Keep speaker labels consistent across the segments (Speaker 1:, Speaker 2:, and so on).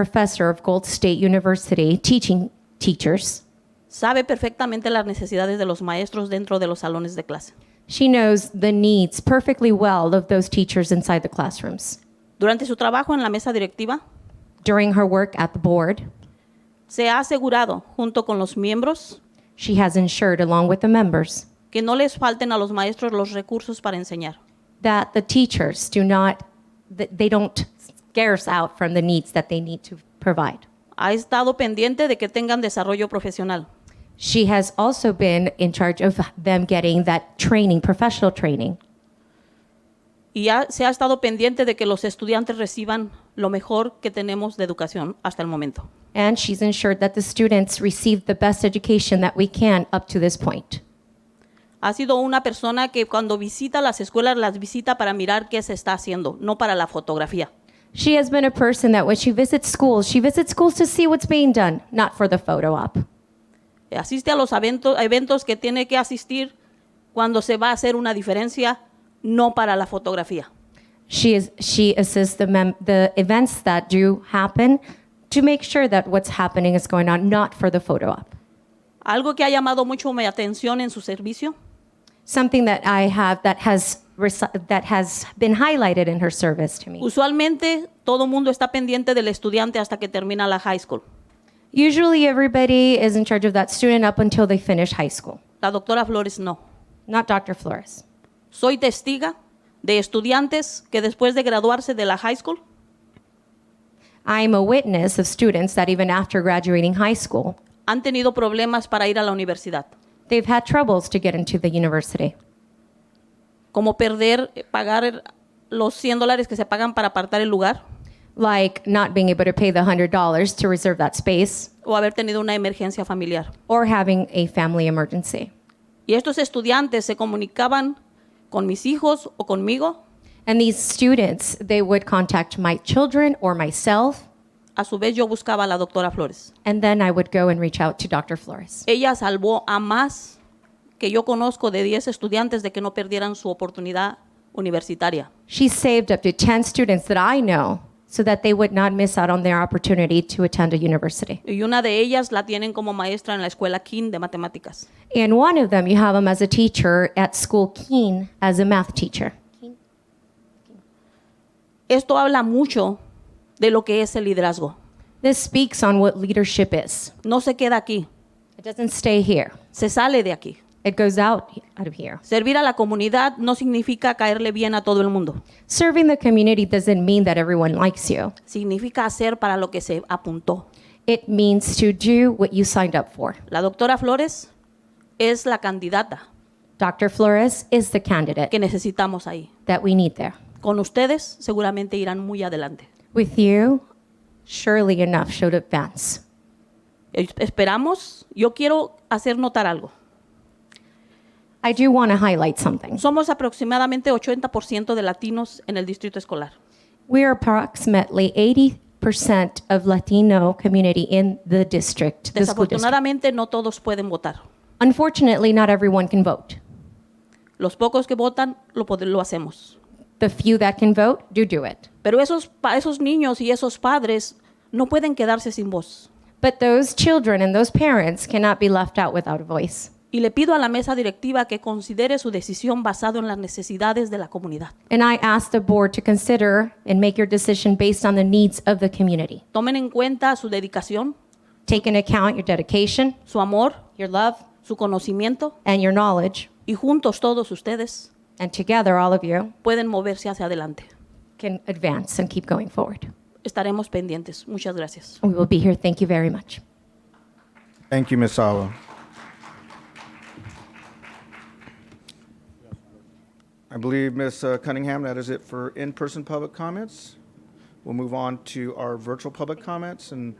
Speaker 1: professor of Gold State University teaching teachers.
Speaker 2: Sabe perfectamente las necesidades de los maestros dentro de los salones de clase.
Speaker 1: She knows the needs perfectly well of those teachers inside the classrooms.
Speaker 2: Durante su trabajo en la mesa directiva,
Speaker 1: During her work at the board,
Speaker 2: se ha asegurado, junto con los miembros,
Speaker 1: she has ensured, along with the members,
Speaker 2: que no les falten a los maestros los recursos para enseñar.
Speaker 1: that the teachers do not, that they don't scarce out from the needs that they need to provide.
Speaker 2: Ha estado pendiente de que tengan desarrollo profesional.
Speaker 1: She has also been in charge of them getting that training, professional training,
Speaker 2: Y ha- se ha estado pendiente de que los estudiantes reciban lo mejor que tenemos de educación hasta el momento.
Speaker 1: and she's ensured that the students receive the best education that we can up to this point.
Speaker 2: Ha sido una persona que cuando visita las escuelas las visita para mirar qué se está haciendo, no para la fotografía.
Speaker 1: She has been a person that when she visits schools, she visits schools to see what's being done, not for the photo op.
Speaker 2: Asiste a los evento- eventos que tiene que asistir cuando se va a hacer una diferencia, no para la fotografía.
Speaker 1: She is she assists the mem- the events that do happen to make sure that what's happening is going on, not for the photo op.
Speaker 2: Algo que ha llamado mucho mi atención en su servicio
Speaker 1: Something that I have that has resi- that has been highlighted in her service to me.
Speaker 2: Usualmente todo mundo está pendiente del estudiante hasta que termina la high school.
Speaker 1: Usually, everybody is in charge of that student up until they finish high school.
Speaker 2: La doctora Flores no.
Speaker 1: Not Dr. Flores.
Speaker 2: Soy testiga de estudiantes que después de graduarse de la high school
Speaker 1: I'm a witness of students that even after graduating high school,
Speaker 2: han tenido problemas para ir a la universidad,
Speaker 1: they've had troubles to get into the university.
Speaker 2: como perder, eh, pagar el- los 100 dólares que se pagan para apartar el lugar
Speaker 1: like not being able to pay the $100 to reserve that space
Speaker 2: o haber tenido una emergencia familiar.
Speaker 1: or having a family emergency.
Speaker 2: Y estos estudiantes se comunicaban con mis hijos o conmigo,
Speaker 1: And these students, they would contact my children or myself,
Speaker 2: a su vez yo buscaba a la doctora Flores.
Speaker 1: and then I would go and reach out to Dr. Flores.
Speaker 2: Ella salvó a más que yo conozco de 10 estudiantes de que no perdieran su oportunidad universitaria.
Speaker 1: She saved up to 10 students that I know so that they would not miss out on their opportunity to attend a university.
Speaker 2: Y una de ellas la tienen como maestra en la escuela King de matemáticas.
Speaker 1: And one of them, you have him as a teacher at school Keene as a math teacher.
Speaker 2: Esto habla mucho de lo que es el liderazgo.
Speaker 1: This speaks on what leadership is.
Speaker 2: No se queda aquí,
Speaker 1: It doesn't stay here.
Speaker 2: se sale de aquí.
Speaker 1: It goes out out of here.
Speaker 2: Servir a la comunidad no significa caerle bien a todo el mundo.
Speaker 1: Serving the community doesn't mean that everyone likes you.
Speaker 2: Significa hacer para lo que se apuntó.
Speaker 1: It means to do what you signed up for.
Speaker 2: La doctora Flores es la candidata
Speaker 1: Dr. Flores is the candidate
Speaker 2: que necesitamos ahí.
Speaker 1: that we need there.
Speaker 2: Con ustedes seguramente irán muy adelante.
Speaker 1: With you, surely enough should advance.
Speaker 2: Eh, Esperamos, yo quiero hacer notar algo.
Speaker 1: I do want to highlight something.
Speaker 2: Somos aproximadamente 80% de latinos en el distrito escolar.
Speaker 1: We are approximately 80% of Latino community in the district, the school district.
Speaker 2: Desafortunadamente no todos pueden votar.
Speaker 1: Unfortunately, not everyone can vote.
Speaker 2: Los pocos que votan lo, pod- lo hacemos.
Speaker 1: The few that can vote do do it.
Speaker 2: Pero esos, pa- esos niños y esos padres no pueden quedarse sin voz.
Speaker 1: But those children and those parents cannot be left out without a voice.
Speaker 2: Y le pido a la mesa directiva que considere su decisión basado en las necesidades de la comunidad.
Speaker 1: And I ask the board to consider and make your decision based on the needs of the community.
Speaker 2: Tomen en cuenta su dedicación,
Speaker 1: Take into account your dedication,
Speaker 2: su amor,
Speaker 1: your love,
Speaker 2: su conocimiento
Speaker 1: and your knowledge,
Speaker 2: y juntos todos ustedes
Speaker 1: and together, all of you
Speaker 2: pueden moverse hacia adelante.
Speaker 1: can advance and keep going forward.
Speaker 2: Estaremos pendientes. Muchas gracias.
Speaker 1: We will be here. Thank you very much.
Speaker 3: Thank you, Ms. Sawa. I believe, Ms. Cunningham, that is it for in-person public comments. We'll move on to our virtual public comments and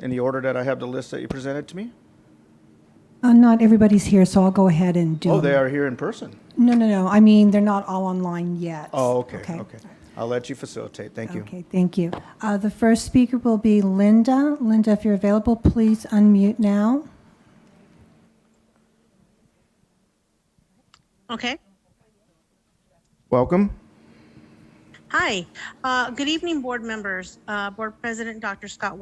Speaker 3: in the order that I have the list that you presented to me.
Speaker 4: Uh, Not everybody's here, so I'll go ahead and do.
Speaker 3: Oh, they
Speaker 4: them.
Speaker 3: are here in person.
Speaker 4: No, no, no. I mean, they're not all online yet.
Speaker 3: Oh, okay, okay. I'll let you facilitate. Thank you.
Speaker 4: Okay, thank you. Uh, The first speaker will be Linda. Linda, if you're available, please unmute now.
Speaker 5: Okay.
Speaker 3: Welcome.
Speaker 5: Hi, Uh, good evening, board members, Uh, Board President Dr. Scott